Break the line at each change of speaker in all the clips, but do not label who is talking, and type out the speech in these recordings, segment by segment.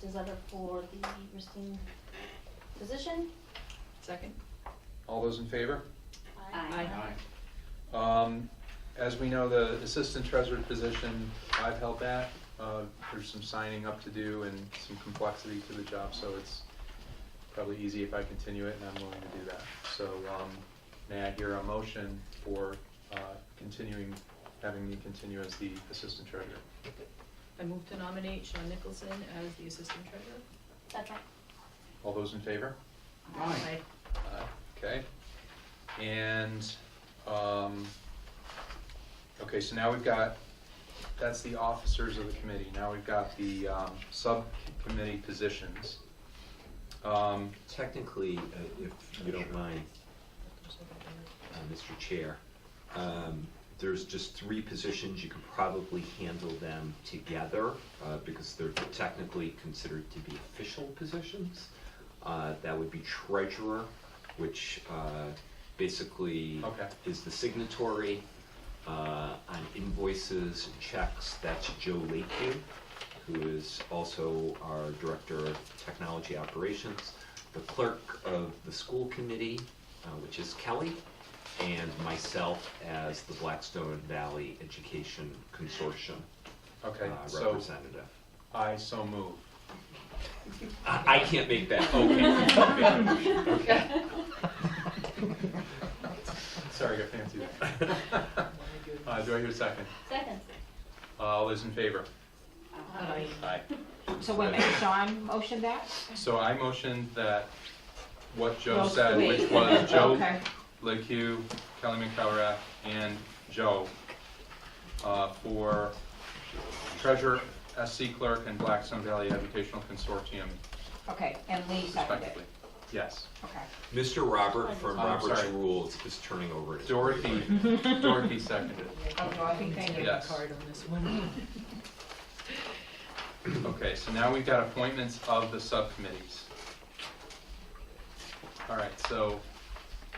Developer for the Racine position.
Second?
All those in favor?
Aye.
Um, As we know, the assistant treasurer position, I've held that. Uh, There's some signing up to do and some complexity to the job, so it's probably easy if I continue it, and I'm willing to do that. So um, may I hear a motion for uh, continuing, having me continue as the assistant treasurer?
I move to nominate Sean Nicholson as the assistant treasurer.
Second.
All those in favor?
Aye.
Aye, Okay, and, um, okay, so now we've got, that's the officers of the committee, now we've got the, um, subcommittee positions. Um,
Technically, uh, if you don't mind, uh, Mr. Chair, um, there's just three positions, you can probably handle them together, uh, because they're technically considered to be official positions. Uh, That would be treasurer, which uh, basically
Okay.
is the signatory uh, on invoices, checks, that's Joe Lakeview, who is also our Director of Technology Operations, the clerk of the school committee, uh, which is Kelly, and myself as the Blackstone Valley Education Consortium uh,
okay, so
representative.
I so move.
I I can't make that, okay. Okay.
Sorry, I got fancy there. Uh, do I hear a second? Uh,
Second.
All those in favor?
Aye.
Aye.
So wait a minute, Sean motioned that?
So I motioned that what Joe
No,
said,
wait.
which was Joe
Okay.
LaQ, Kelly McCowrath, and Joe uh, for treasurer, SC clerk, and Blackstone Valley Educational Consortium
Okay, and Lee seconded
respectively.
it.
Yes.
Okay.
Mr. Robert from
I'm
Robert's
sorry.
Rules is turning over. to-
Dorothy, Dorothy seconded.
Oh, no, I think they did.
Yes.
Card on this one.
Okay, so now we've got appointments of the subcommittees. All right, so,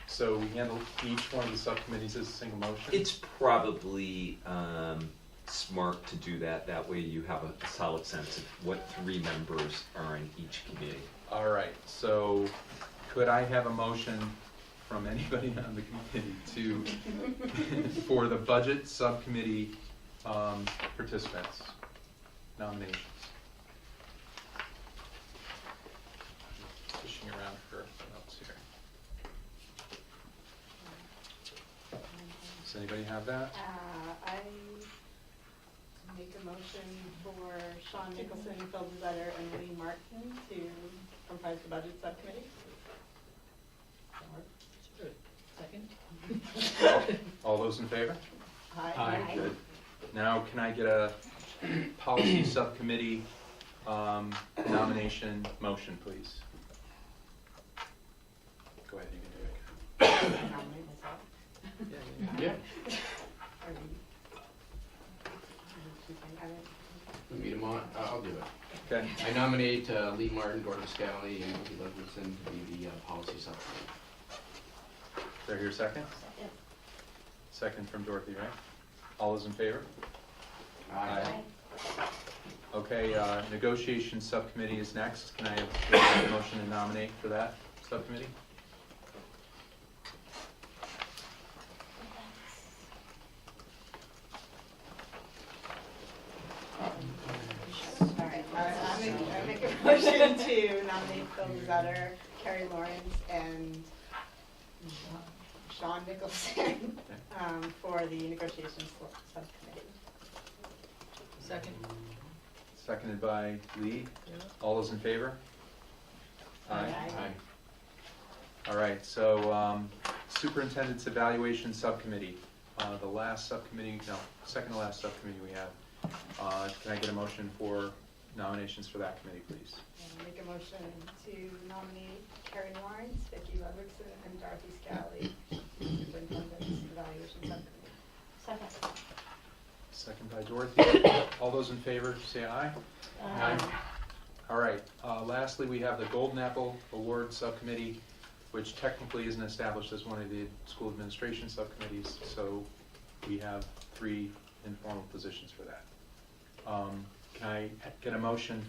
so we handle each one of the subcommittees as a single motion?
It's probably um, smart to do that, that way you have a solid sense of what three members are in each committee.
All right, so could I have a motion from anybody on the committee to, for the budget subcommittee um, participants, nominations? Fishing around for notes here. Does anybody have that?
Uh, I make a motion for Sean Nicholson, Phil Devetter, and Lee Martin to comprise the budget subcommittee.
Second?
All those in favor?
Hi.
Good. Now, can I get a policy subcommittee um, nomination motion, please? Go ahead, you can do it.
Yeah,
I
we meet him on, I- I'll do it.
Okay,
I nominate uh, Lee Martin, Gordon Scally, and Vicky Ludwigson to be the uh, policy subcommittee.
do I hear a second? Second from Dorothy, right? All those in favor? Aye. Okay, uh, negotiation subcommittee is next. Can I have a motion to nominate for that subcommittee?
All right, I make, I make a motion to nominate Phil Devetter, Carrie Lawrence, and Sean Nicholson, um, for the negotiations subcommittee.
Second?
Seconded by Lee.
Yeah.
All those in favor? Aye.
Aye.
All right, so um, Superintendent's Evaluation Subcommittee, uh, the last subcommittee, no, second to last subcommittee we have. Uh, Can I get a motion for nominations for that committee, please?
And Make a motion to nominate Carrie Lawrence, Vicki Ludwigson, and Dorothy Scally, superintendent's evaluation subcommittee.
Second.
Second by Dorothy. All those in favor, say aye. All right, uh, lastly, we have the Golden Apple Award Subcommittee, which technically isn't established as one of the school administration subcommittees, so we have three informal positions for that. Um, Can I get a motion